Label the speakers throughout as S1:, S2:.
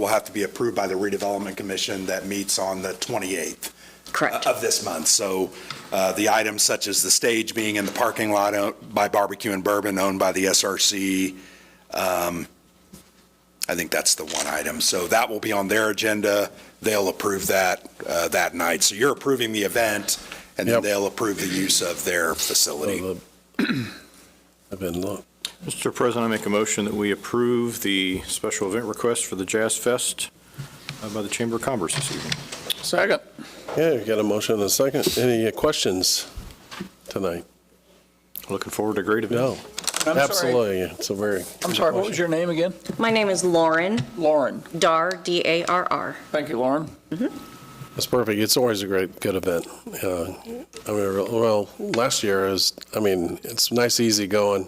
S1: will have to be approved by the redevelopment commission that meets on the 28th
S2: Correct.
S3: Uh,
S1: of this month. So uh, the items such as the stage being in the parking lot owned by Barbecue and Bourbon owned by the SRC, um, I think that's the one item. So that will be on their agenda. They'll approve that uh, that night. So you're approving the event, and then
S3: Yep.
S1: they'll approve the use of their facility.
S3: I've been look.
S4: Mr. President, I make a motion that we approve the special event request for the Jazz Fest uh, by the Chamber of Commerce this evening.
S5: Second.
S3: Yeah, we got a motion and a second. Any uh, questions tonight?
S4: Looking forward to a great event.
S3: No,
S5: I'm sorry.
S3: absolutely. It's a very.
S5: I'm sorry, what was your name again?
S2: My name is Lauren
S5: Lauren.
S2: Dar, D-A-R-R.
S5: Thank you, Lauren.
S3: It's perfect. It's always a great, good event. Uh, I mean, well, last year is, I mean, it's nice, easy going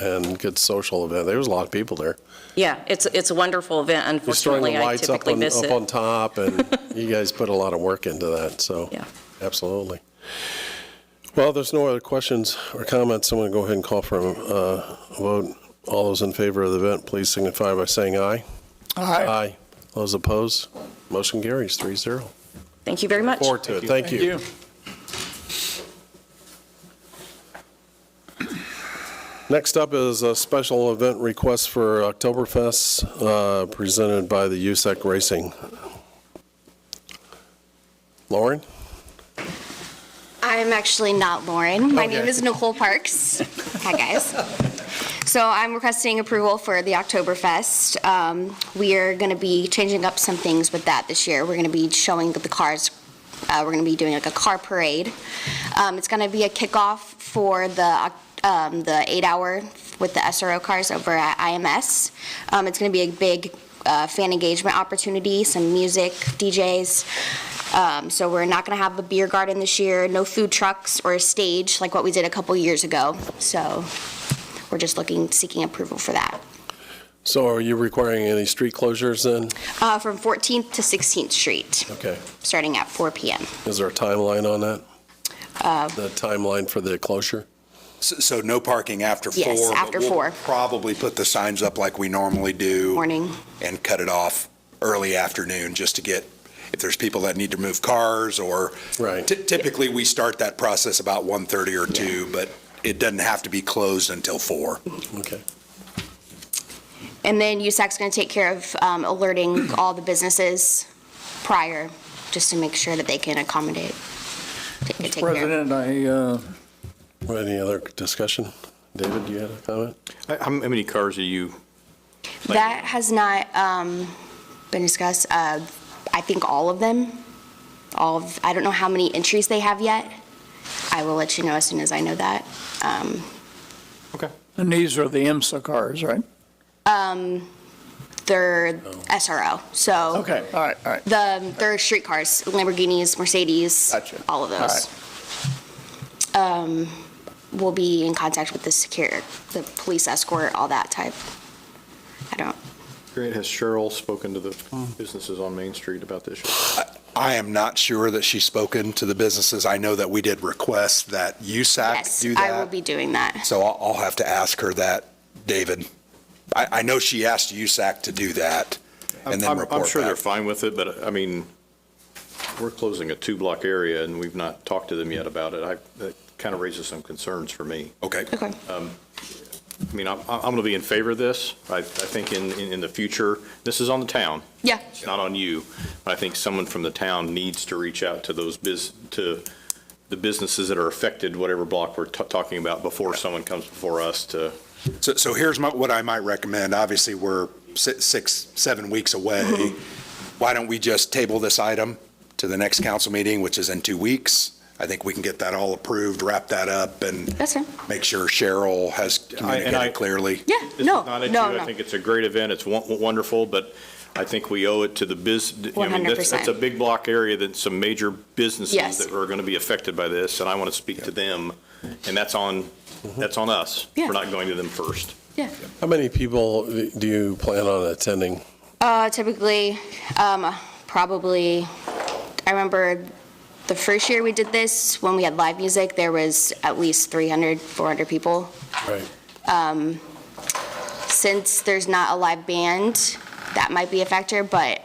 S3: and good social event. There was a lot of people there.
S2: Yeah, it's, it's a wonderful event.
S3: Just throwing the
S2: Unfortunately, I
S3: lights up
S2: typically
S3: on,
S2: miss
S3: up on
S2: it.
S3: top and you guys put a lot of work into that, so.
S2: Yeah.
S3: Absolutely. Well, there's no other questions or comments. I'm going to go ahead and call for a uh, vote. All those in favor of the event, please signify by saying aye. Aye. Those opposed, motion carries three zero.
S2: Thank you very much.
S3: Forward to it. Thank
S5: Thank
S3: you.
S5: you.
S3: Next up is a special event request for Oktoberfest uh, presented by the USAC Racing. Lauren?
S6: I'm actually not Lauren. My name
S3: Okay.
S6: is Nicole Parks. Hi, guys. So I'm requesting approval for the Oktoberfest. Um, We are going to be changing up some things with that this year. We're going to be showing the cars, uh, we're going to be doing like a car parade. Um, It's going to be a kickoff for the, Oc- um, the eight-hour with the SRO cars over at IMS. Um, It's going to be a big uh, fan engagement opportunity, some music, DJs. Um, So we're not going to have a beer garden this year, no food trucks or a stage like what we did a couple years ago. So we're just looking, seeking approval for that.
S3: So are you requiring any street closures then?
S6: Uh, From 14th to 16th Street,
S3: Okay.
S6: starting at 4 PM.
S3: Is there a timeline on that?
S6: Uh,
S3: The timeline for the closure?
S1: So so no parking after four?
S6: Yes,
S1: but
S6: after
S1: we'll
S6: four.
S1: Probably put the signs up like we normally do.
S6: Morning.
S1: And cut it off early afternoon, just to get, if there's people that need to move cars or.
S3: Right.
S1: Ty- Typically, we start that process about 1:30 or two, but it doesn't have to be closed until four.
S3: Okay.
S6: And then USAC's going to take care of um, alerting all the businesses prior, just to make sure that they can accommodate. take- take
S5: Mr.
S6: care of-
S5: President, I, uh,
S3: Any other discussion? David, you had a comment?
S4: How how many cars are you? planning?
S6: That has not um, been discussed. Uh, I think all of them, all of, I don't know how many entries they have yet. I will let you know as soon as I know that. Um,
S4: Okay.
S5: and these are the IMSA cars, right?
S6: um, They're SRO, so.
S5: Oh. Okay, all right, all right.
S6: The, um, they're street cars, Lamborghinis, Mercedes.
S5: Gotcha.
S6: All of
S5: All
S6: those.
S5: right.
S6: Um, We'll be in contact with the secure, the police escort, all that type. I don't,
S4: Great. Has Cheryl spoken to the businesses on Main Street about this?
S1: I am not sure that she's spoken to the businesses. I know that we did request that USAC
S6: yes,
S1: do that.
S6: I will be doing that.
S1: So I'll, I'll have to ask her that, David. I, I know she asked USAC to do that and then
S4: I'm-
S1: report
S4: I'm sure they're
S1: back.
S4: fine with it, but I mean, we're closing a two-block area and we've not talked to them yet about it. I, that kind of raises some concerns for me.
S1: Okay.
S6: Okay.
S4: I mean, I'm, I'm going to be in favor of this. I, I think in, in in the future, this is on the town.
S6: Yeah.
S4: It's not on you. But I think someone from the town needs to reach out to those biz, to the businesses that are affected, whatever block we're ta- talking about, before someone comes before us to,
S1: So, so here's my, what I might recommend. Obviously, we're si- six, seven weeks away.
S4: Mm-hmm.
S1: Why don't we just table this item to the next council meeting, which is in two weeks? I think we can get that all approved, wrap that up and
S6: That's fine.
S1: make sure Cheryl has
S4: I-
S1: communicated clearly.
S6: Yeah,
S4: This is
S6: no,
S4: not at
S6: no,
S4: you. I
S6: no.
S4: think it's a great event. It's won- wonderful, but I think we owe it to the biz. I mean, that's- That's a
S6: 100%.
S4: big block area that some major businesses
S6: Yes.
S4: that are going to be affected by this, and I want to speak to them. And that's on, that's on us
S6: Yeah.
S4: for not going to them first.
S3: How many people do you plan on attending?
S6: Uh, typically, um, probably, I remember the first year we did this, when we had live music, there was at least 300, 400 people.
S3: Right.
S6: Since there's not a live band, that might be a factor, but